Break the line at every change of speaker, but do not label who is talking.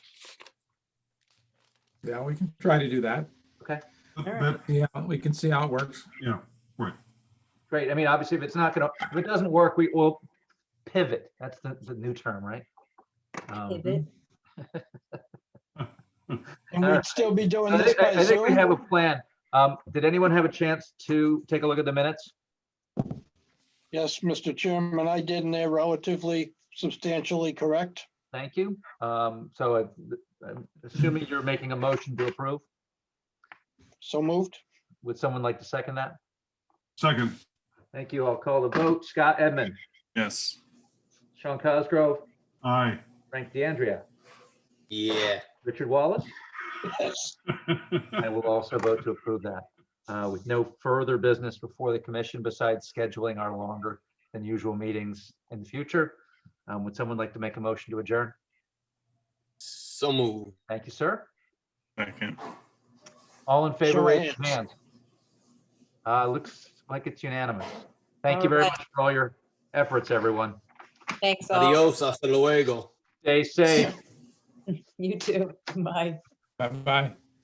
Yeah, we can try to do that.
That-
All right.
that-
Yeah, we can see how it works.
yeah,
Great. I mean, obviously, if it's not gonna, if it doesn't work, we will pivot. That's the, the new term, right? Um,
Pivot.
And
All
we'd
right.
still be doing
Uh, I
this
think, I-
by
I think we
Zoom?
have a plan. Um, did anyone have a chance to take a look at the minutes?
Yes, Mr. Chairman, I did, and they're relatively substantially correct.
Thank you. Um, so I- I'm assuming you're making a motion to approve.
So moved?
Would someone like to second that?
second,
Thank you. I'll call the vote. Scott Edmund,
Yes.
Sean Cosgrove,
aye.
Frank DeAndrea,
Yeah.
Richard Wallace.
Yes.
I will also vote to approve that. Uh, With no further business before the commission besides scheduling our longer than usual meetings in the future. Um, Would someone like to make a motion to adjourn?
So moved.
Thank you, sir.
Second.
All in favor,
Show of
raise your
hands.
hand. Uh, Looks like it's unanimous. Thank you very
Alright.
much for all your efforts, everyone.
Thanks all.
Adios, hasta luego.
Stay safe.
You too. Bye.
Bye-bye.